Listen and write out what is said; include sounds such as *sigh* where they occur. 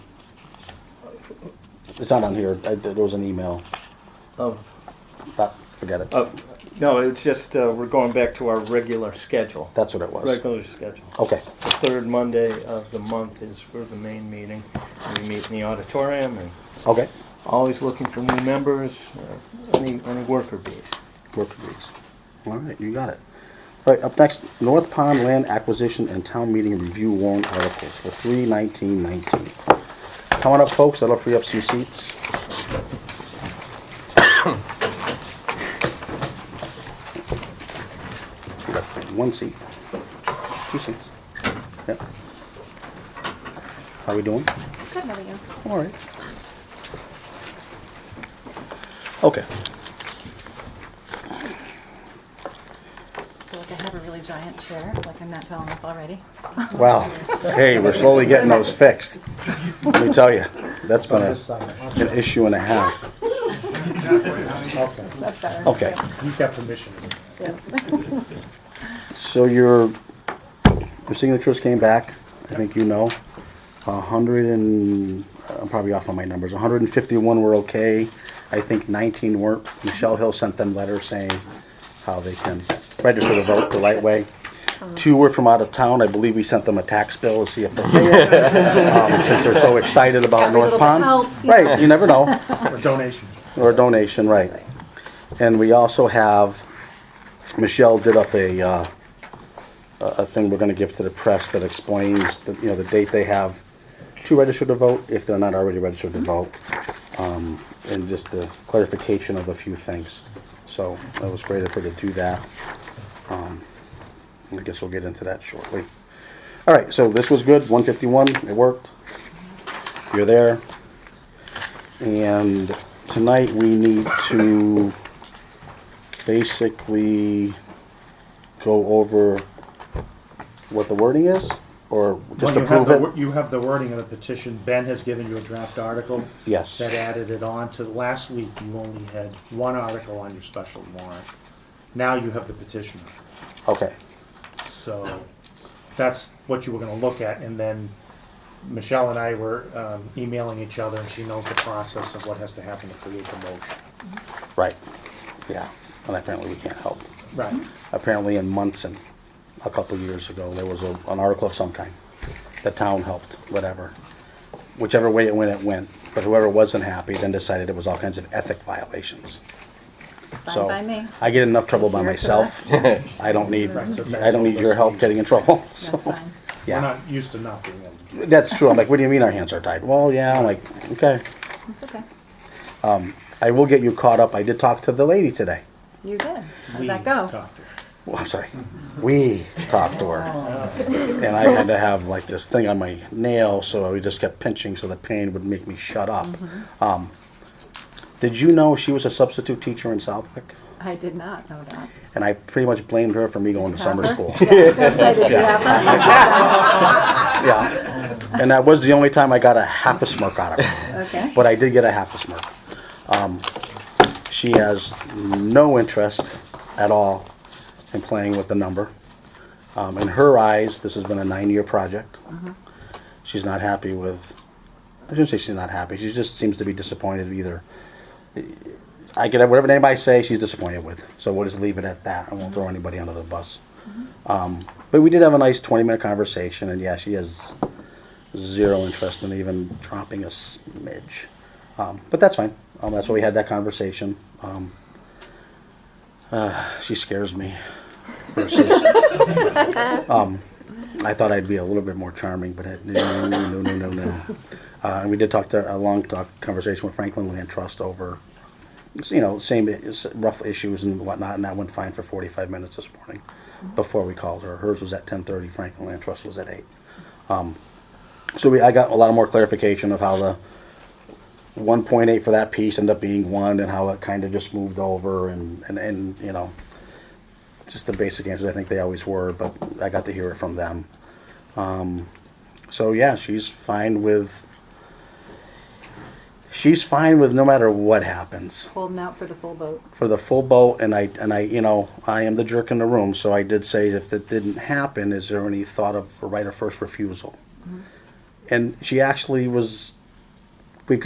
It's not on here. I, there was an email. of, Ah, forget it. of, no, it's just, uh, we're going back to our regular schedule. That's what it was. Regular schedule. Okay. The third Monday of the month is for the main meeting. We meet in the auditorium and Okay. always looking for new members, uh, any, any worker bees. Work agrees. All right, you got it. All right, up next, North Pond Land Acquisition and Town Meeting Review Warrant Articles for three nineteen nineteen. Come on up, folks. That'll free up some seats. *coughs* One seat. Two seats. Yep. How we doing? Good, how are you? All right. Okay. I feel like I have a really giant chair, like I'm not tall enough already. Wow. Hey, we're slowly getting those fixed. Let me tell you, that's been a, an issue and a half. That's Oh, better. Okay, You've got permission. Yes. so your, your signatures came back, I think you know. A hundred and, I'm probably off on my numbers, hundred and fifty-one were okay. I think nineteen weren't. Michelle Hill sent them letters saying how they can register to vote the right way. Uh-huh. Two were from out of town. I believe we sent them a tax bill to see *laughs* if they um, since they're so excited about Every North little bit Pond. helps, yeah. Right, you never know. Or donation. Or a donation, right. And we also have, Michelle did up a, uh, a a thing we're gonna give to the press that explains, the you know, the date they have to register to vote, if they're not already registered to vote, um, and just the clarification of a few things. So that was great of her to do that. Um, I guess we'll get into that shortly. All right, so this was good, 151, it worked. You're there. And tonight we need to basically go over what the wording is, or just Well, you have approve the wor- it? You have the wording of the petition. Ben has given you a draft article. Yes. That added it on to, last week, you only had one article on your special warrant. Now you have the petition. Okay, So that's what you were gonna look at, and then Michelle and I were um, emailing each other, and she knows the process of what has to happen to create the motion. right, yeah, and apparently we can't help. Right. Apparently in Munson, a couple years ago, there was a- an article of some kind. The town helped, whatever. Whichever way it went, it went, but whoever wasn't happy then decided it was all kinds of ethic violations. So Fine by me. I get enough trouble by Here for myself. I don't need, Right, so I don't need your help getting in trouble, *laughs* so. That's fine. We're Yeah, not used to not being able to do that's true. I'm like, what do you mean our hands are tied? Well, yeah, I'm like, okay. It's okay. I will get you caught up. I did talk to the lady today. You did. that. How'd We that go? talked it. Well, I'm sorry. We talked to her. And I had to have like this thing on my nail, so I just kept pinching so the pain would make me shut up. Um, did you know she was a substitute teacher in Southwick? I did not know *laughs* that. And I pretty much blamed her for me going to summer school. Say, did you have that? Yeah. And that was the only time I got a half a smirk out of her. Okay. But I did get a half a smirk. Um, she has no interest at all in playing with the number. Um, in her eyes, this has been a nine-year project. She's not happy with. I shouldn't say she's not happy. She just seems to be disappointed. Either I could have whatever name I say, she's disappointed with. So we'll just leave it at that. I won't throw anybody under the bus. Um, but we did have a nice twenty-minute conversation, and yeah, she has zero interest in even dropping a smidge. Um, but that's fine. Um, that's why we had that conversation. Um, uh, she scares me. Versus, um, I thought I'd be a little bit more charming, but it- no, no, no, no, no, no. Uh, and we did talk to a long talk conversation with Franklin Land Trust over, you know, same is- rough issues and whatnot, and that went fine for 45 minutes this morning before we called her. Hers was at 10:30. Franklin Land Trust was at eight. So we, I got a lot more clarification of how the one point eight for that piece ended up being one and how it kind of just moved over and, and, and, you know, just the basic answers I think they always were, but I got to hear it from them. Um, so yeah, she's fine with, she's fine with no matter what happens Holding out for the full boat. for the full boat, and I, and I, you know, I am the jerk in the room, so I did say if that didn't happen, is there any thought of a right of first refusal? And she actually was